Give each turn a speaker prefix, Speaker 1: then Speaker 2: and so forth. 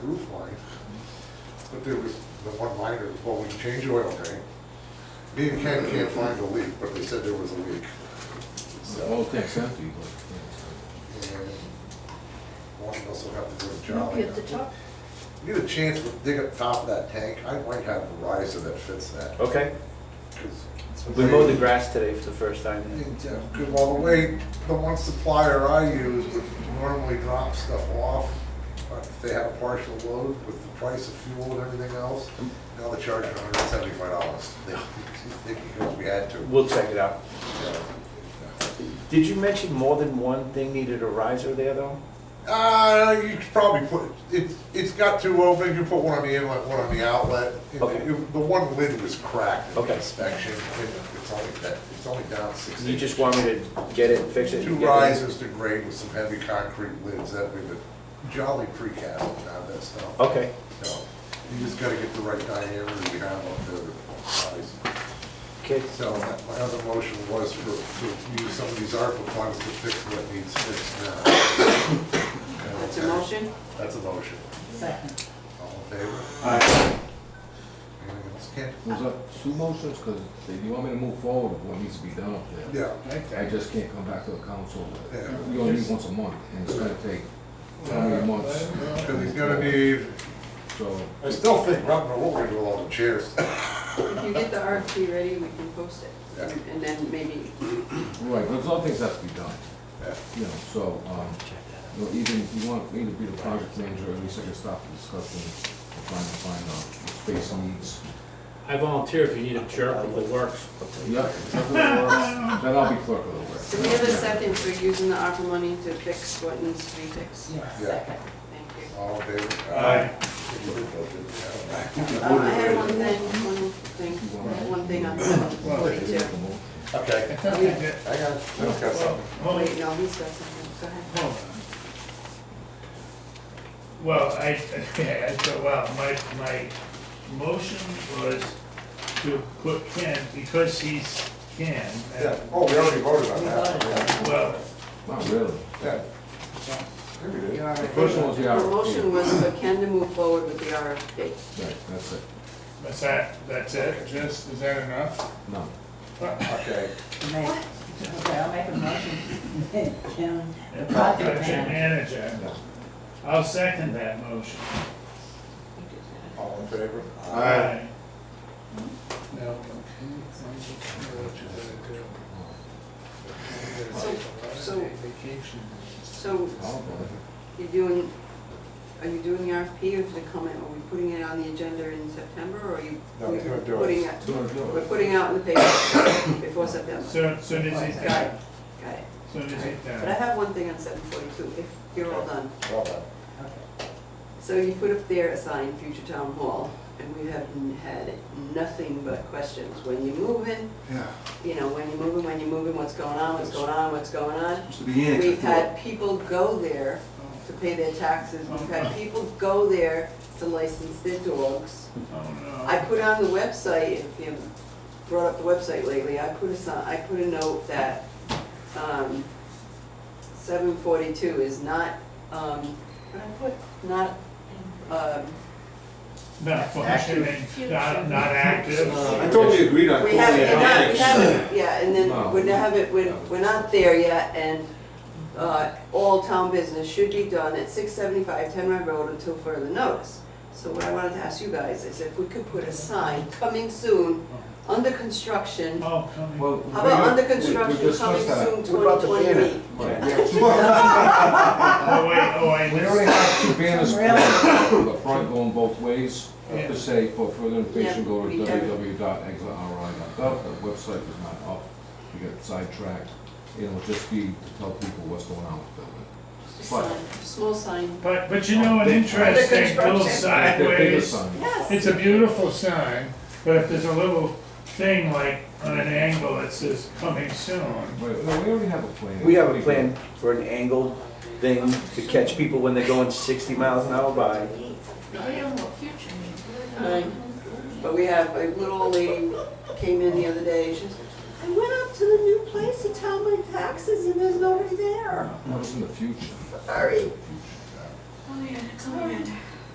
Speaker 1: roof line. But there was the one liner, well, we changed the oil tank. Me and Ken can't find a leak, but they said there was a leak.
Speaker 2: The
Speaker 1: So,
Speaker 2: whole thing's empty, but, yeah,
Speaker 1: and one of us will have to do a job.
Speaker 3: Look at the top.
Speaker 1: Need a chance to dig up top of that tank, I might have a riser that fits that.
Speaker 4: Okay,
Speaker 1: 'cause
Speaker 4: we mowed the grass today for the first time.
Speaker 1: Yeah, Cause while the way, the one supplier I use would normally drop stuff off, but if they had a partial load with the price of fuel and everything else, now they're charging hundred and seventy-five dollars. They, they, because we had to.
Speaker 4: We'll check it out.
Speaker 1: Yeah.
Speaker 4: Did you mention more than one thing needed a riser there, though?
Speaker 1: Uh, you could probably put, it's, it's got two openings, you put one on the inlet, one on the outlet. And
Speaker 4: Okay.
Speaker 1: it- The one lid was cracked in
Speaker 4: Okay.
Speaker 1: the inspection, and it's only, that- it's only down six
Speaker 4: You
Speaker 1: inches.
Speaker 4: just want me to get it and fix it?
Speaker 1: Two
Speaker 4: and get it?
Speaker 1: risers to grade with some heavy concrete lids that we would jolly precast and have that stuff.
Speaker 4: Okay,
Speaker 1: So, You just gotta get the right diameter we have on the the size.
Speaker 4: okay.
Speaker 1: So that- my other motion was for, to use some of these ARPA funds to fix what needs fixed now.
Speaker 5: That's a motion?
Speaker 1: That's a motion.
Speaker 3: Second.
Speaker 1: All in favor?
Speaker 4: Alright.
Speaker 1: Anything else, Ken?
Speaker 2: so. Was that two motions, because they, you want me to move forward with what needs to be done up there?
Speaker 1: Yeah.
Speaker 2: I just can't come back to the council,
Speaker 1: Yeah.
Speaker 2: we only meet once a month, and it's gonna take how many months?
Speaker 1: Cause he's gonna need,
Speaker 2: So,
Speaker 1: I still think, I don't know what we're gonna do with all the chairs.
Speaker 5: If you get the RFP ready, we can post it.
Speaker 1: Yeah.
Speaker 5: And then maybe,
Speaker 2: right, there's other things that have to be done,
Speaker 1: Yeah.
Speaker 2: you know, so, um, you know, even, if you want me to be the project manager, at least I can stop the discussion, and trying to find out what space needs.
Speaker 6: I volunteer if you need a jerk of the works.
Speaker 2: Yep, something works, then I'll be clerk of the works.
Speaker 5: so we have a second for using the ARPA money to fix what needs to be fixed.
Speaker 3: Yes,
Speaker 1: Yeah.
Speaker 3: second.
Speaker 5: Thank you.
Speaker 1: All in favor?
Speaker 6: Aye.
Speaker 5: Um, I had one thing, one thing, one thing on forty-two.
Speaker 1: Okay. I got, I've got something.
Speaker 5: Wait, no, he's got something, go ahead.
Speaker 7: Well, I, I thought, wow, my, my motion was to put Ken, because he's Ken,
Speaker 1: Yeah,
Speaker 7: and,
Speaker 1: oh, we already voted on
Speaker 3: We
Speaker 1: that.
Speaker 3: voted on
Speaker 1: Yeah.
Speaker 7: well,
Speaker 2: Not really.
Speaker 1: Yeah. Here we
Speaker 3: You
Speaker 1: go.
Speaker 3: already-
Speaker 2: The first one was the
Speaker 5: The
Speaker 2: RFP.
Speaker 5: motion was for Ken to move forward with the RFP.
Speaker 2: Right, that's it,
Speaker 7: that's that, that's it, just, is that enough?
Speaker 2: no.
Speaker 1: Okay,
Speaker 3: Make- Okay, I'll make a motion. Jim,
Speaker 7: And
Speaker 3: Project
Speaker 7: Project manager,
Speaker 2: no.
Speaker 7: I'll second that motion.
Speaker 1: all in favor?
Speaker 7: Aye.
Speaker 5: So, so, so you're doing, are you doing the RFP or is it coming, are we putting it on the agenda in September or are you?
Speaker 1: No, we're gonna do it.
Speaker 5: putting it-
Speaker 2: Do it, do
Speaker 5: We're
Speaker 2: it.
Speaker 5: putting out in the paper before September.
Speaker 7: So, so does it,
Speaker 5: Got it, got it.
Speaker 7: so does it,
Speaker 5: But I
Speaker 7: uh,
Speaker 5: have one thing on seven forty-two, if you're all done.
Speaker 1: Well done.
Speaker 5: So you put up there a sign, future town hall, and we have n- had nothing but questions. When you moving,
Speaker 1: Yeah.
Speaker 5: you know, when you moving, when you moving, what's going on, what's going on, what's going on?
Speaker 8: It's the beginning.
Speaker 5: We've had people go there to pay their taxes, we've had people go there to license their dogs.
Speaker 7: oh no.
Speaker 5: I put on the website, if you brought up the website lately, I put a sign, I put a note that, um, seven forty-two is not, um, what I put, not, um,
Speaker 7: Not functioning, not, not active.
Speaker 8: I totally agreed on
Speaker 5: we
Speaker 8: calling
Speaker 5: haven't,
Speaker 8: it
Speaker 5: we're not, we
Speaker 8: ethics.
Speaker 5: haven't, yeah, and then
Speaker 2: No.
Speaker 5: we haven't, we're, we're not there yet, and, uh, all town business should be done at six seventy-five Ten Run Road until further notice. So what I wanted to ask you guys is if we could put a sign, coming soon, under construction,
Speaker 7: Oh, come on.
Speaker 2: Well,
Speaker 5: How about under
Speaker 2: we- we- we
Speaker 5: construction
Speaker 2: discussed
Speaker 5: coming
Speaker 2: that.
Speaker 5: soon,
Speaker 1: What about
Speaker 5: twenty
Speaker 1: the
Speaker 5: twenty-eight?
Speaker 7: Oh, wait, oh, I
Speaker 2: We
Speaker 7: missed.
Speaker 2: already have two banners,
Speaker 3: Really?
Speaker 2: the front going both ways,
Speaker 7: Yeah.
Speaker 2: to say, for further information,
Speaker 5: Yeah,
Speaker 2: go to
Speaker 5: we have-
Speaker 2: www.exitri.gov, the website was not up, we got sidetracked, it'll just be to tell people what's going on with the building.
Speaker 5: Sign, Small sign.
Speaker 7: But, but you know, an interesting little
Speaker 2: Like the bigger
Speaker 7: sideways,
Speaker 2: sign.
Speaker 5: Yes.
Speaker 7: it's a beautiful sign, but if there's a little thing like on an angle that says coming soon,
Speaker 2: Wait, no, we already have a plan.
Speaker 4: We have a plan for an angled thing to catch people when they're going sixty miles an hour by.
Speaker 5: Um, But we have, a little old lady came in the other day, she says, I went up to the new place to tell my taxes and there's nobody there.
Speaker 2: That was in the future.
Speaker 5: Sorry.
Speaker 2: Future.
Speaker 9: Oh, yeah, it's on the end.